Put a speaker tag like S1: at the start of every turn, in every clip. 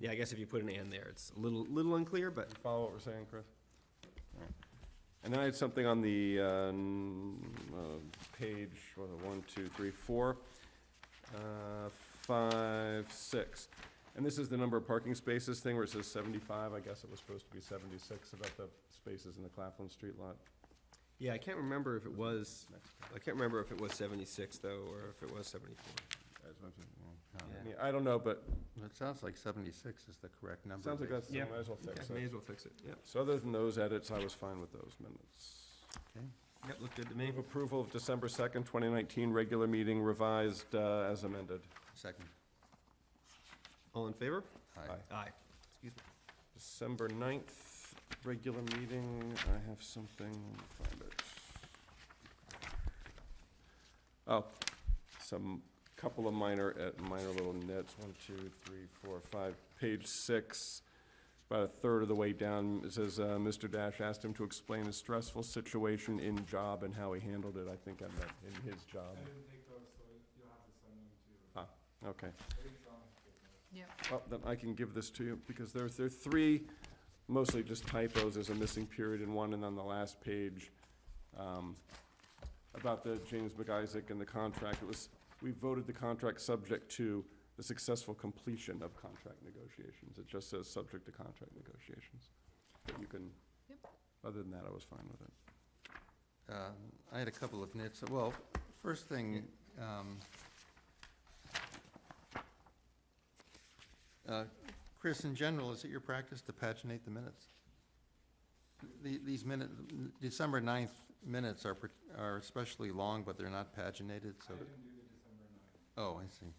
S1: Yeah, I guess if you put an and there, it's a little, little unclear, but
S2: You follow what we're saying, Chris? Alright. And then I had something on the, uh, n- uh, page, what, one, two, three, four, uh, five, six. And this is the number of parking spaces thing where it says seventy-five, I guess it was supposed to be seventy-six about the spaces in the Claflin Street lot.
S1: yeah, I can't remember if it was, I can't remember if it was seventy-six though, or if it was seventy-four.
S2: I mean, I don't know, but
S3: Um, It sounds like 76 is the correct number.
S2: sounds like
S3: based-
S2: that's,
S1: Yeah.
S2: might as well fix
S1: Okay, May
S2: it.
S1: as well fix it, yeah.
S2: So other than those edits, I was fine with those minutes.
S3: Okay.
S1: Yep, looked good to me.
S2: Move approval of December second, twenty nineteen, regular meeting revised, uh, as amended.
S3: Second.
S1: All in favor?
S3: Aye.
S2: Aye.
S1: Aye. Excuse me.
S2: December 9th, regular meeting, I have something, let me find it. Oh, some, couple of minor, uh, minor little nits, one, two, three, four, five, page six, about a third of the way down, it says, uh, Mr. Dash asked him to explain a stressful situation in job and how he handled it, I think I meant in his job. Ah, okay. Well, then I can give this to you, because there's, there are three, mostly just typos, there's a missing period in one, and on the last page, um, about the James McIsaac and the contract, it was, we voted the contract subject to the successful completion of contract negotiations, it just says subject to contract negotiations. But you can,
S4: Yep.
S2: other than that, I was fine with it.
S3: Um, I had a couple of nits. Well, first thing, um, uh, Chris, in general, is it your practice to paginate the minutes? The- These minute, December 9th minutes are per- are especially long, but they're not paginated, so. Oh, I see.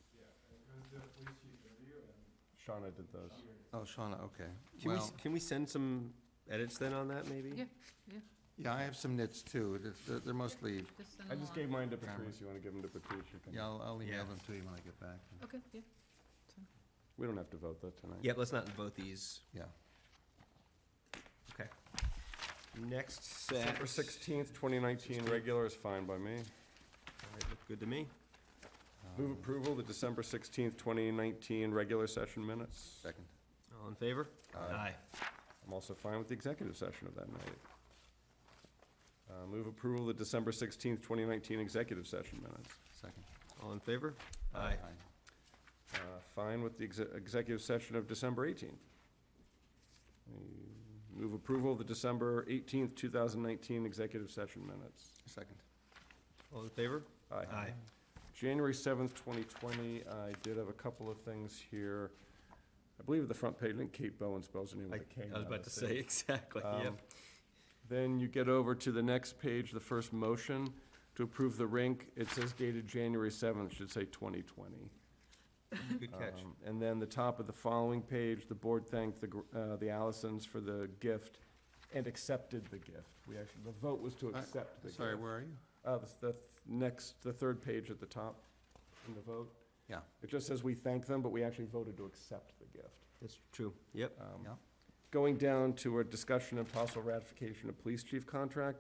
S2: Shauna did those.
S3: Oh, Shauna, okay.
S1: Can we, s-
S3: Well-
S1: can we send some edits then on that, maybe?
S4: Yeah.
S3: Yeah, I have some nits too. It's- They're they're mostly,
S4: Just send
S2: I
S4: them
S2: just
S4: along.
S2: gave mine to Patrice, you wanna give them to Patrice, you can.
S3: yeah, I'll I'll
S1: Yeah.
S3: email them to you when I get back.
S4: Okay, yeah.
S2: We don't have to vote that tonight.
S1: Yep, let's not vote these.
S3: Yeah.
S1: Okay. Next set.
S2: December sixteenth, twenty nineteen, regular is fine by me.
S1: All right, looked good to me.
S2: Move
S3: Um,
S2: approval of the December 16th, 2019 regular session minutes.
S3: Second.
S1: All in favor?
S3: Aye.
S2: I'm also fine with the executive session of that night. Uh, Move approval of the December 16th, 2019 executive session minutes.
S3: Second.
S1: All in favor? Aye.
S2: Uh, Fine with the exe- executive session of December 18th. Mm, Move approval of the December 18th, 2019 executive session minutes.
S3: Second.
S1: All in favor? Aye.
S2: January seventh, twenty twenty, I did have a couple of things here. I believe the front page, I think Kate Bowen spells her name
S1: I
S2: with a K.
S1: I was
S2: not
S1: about
S2: a
S1: to
S2: C.
S1: say, exactly, yep.
S2: Um, Then you get over to the next page, the first motion, to approve the rink. It says dated January seventh, should say twenty twenty. Um,
S1: Good catch.
S2: And then the top of the following page, the board thanked the, gr- uh, the Allisons for the gift and accepted the gift. We actually, the vote was to
S3: I-
S2: accept the gift.
S3: Sorry, where are you?
S2: Uh, the, the th- next, the third page at the top in the vote.
S3: Yeah.
S2: It just says we thank them, but we actually voted to accept the gift.
S1: That's true, yep.
S2: Um,
S3: Yeah.
S2: Going down to a discussion and possible ratification of police chief contract,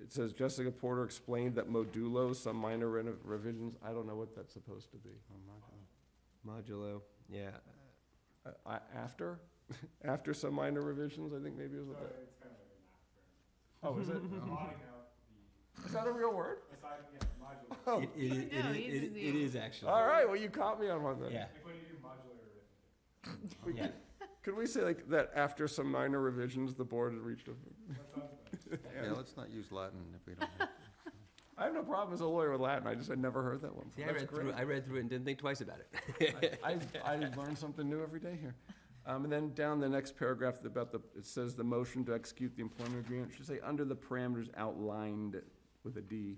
S2: it says Jessica Porter explained that Modulo, some minor reno- revisions, I don't know what that's supposed to be.
S3: Oh, my God.
S1: Modulo, yeah.
S2: Uh, I, after, after some minor revisions, I think maybe is what that. Oh, is it? Is that a real word? Oh.
S1: It- it- it-
S4: No,
S1: it-
S4: he's
S1: it-
S4: easy.
S1: It is actually.
S2: All right, well, you caught me on one then.
S1: Yeah.
S2: We
S1: Yeah.
S2: could- Could we say like that after some minor revisions, the board had reached a,
S3: Yeah, let's not use Latin if we don't have to.
S2: I have no problem as a lawyer with Latin, I just had never heard that one.
S1: See, I
S2: That's
S1: read through,
S2: great.
S1: I read through it and didn't think twice about it.
S2: I, I learn something new every day here. Um, and then down the next paragraph about the, it says the motion to execute the employment agreement, it should say under the parameters outlined with a D,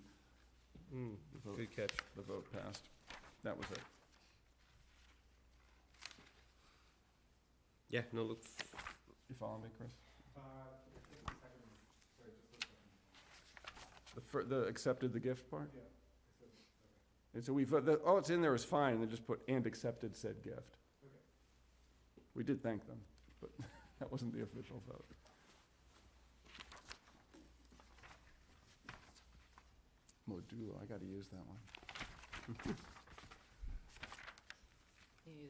S2: the vote,
S1: Good catch.
S2: the vote passed. That was it.
S1: Yeah, no, look,
S2: You follow me, Chris? The fir, the accepted the gift part? Yeah. And so we, vote- the, all it's in there is fine, and then just put, and accepted said gift. We did thank them, but that wasn't the official vote. Modulo, I gotta use that one.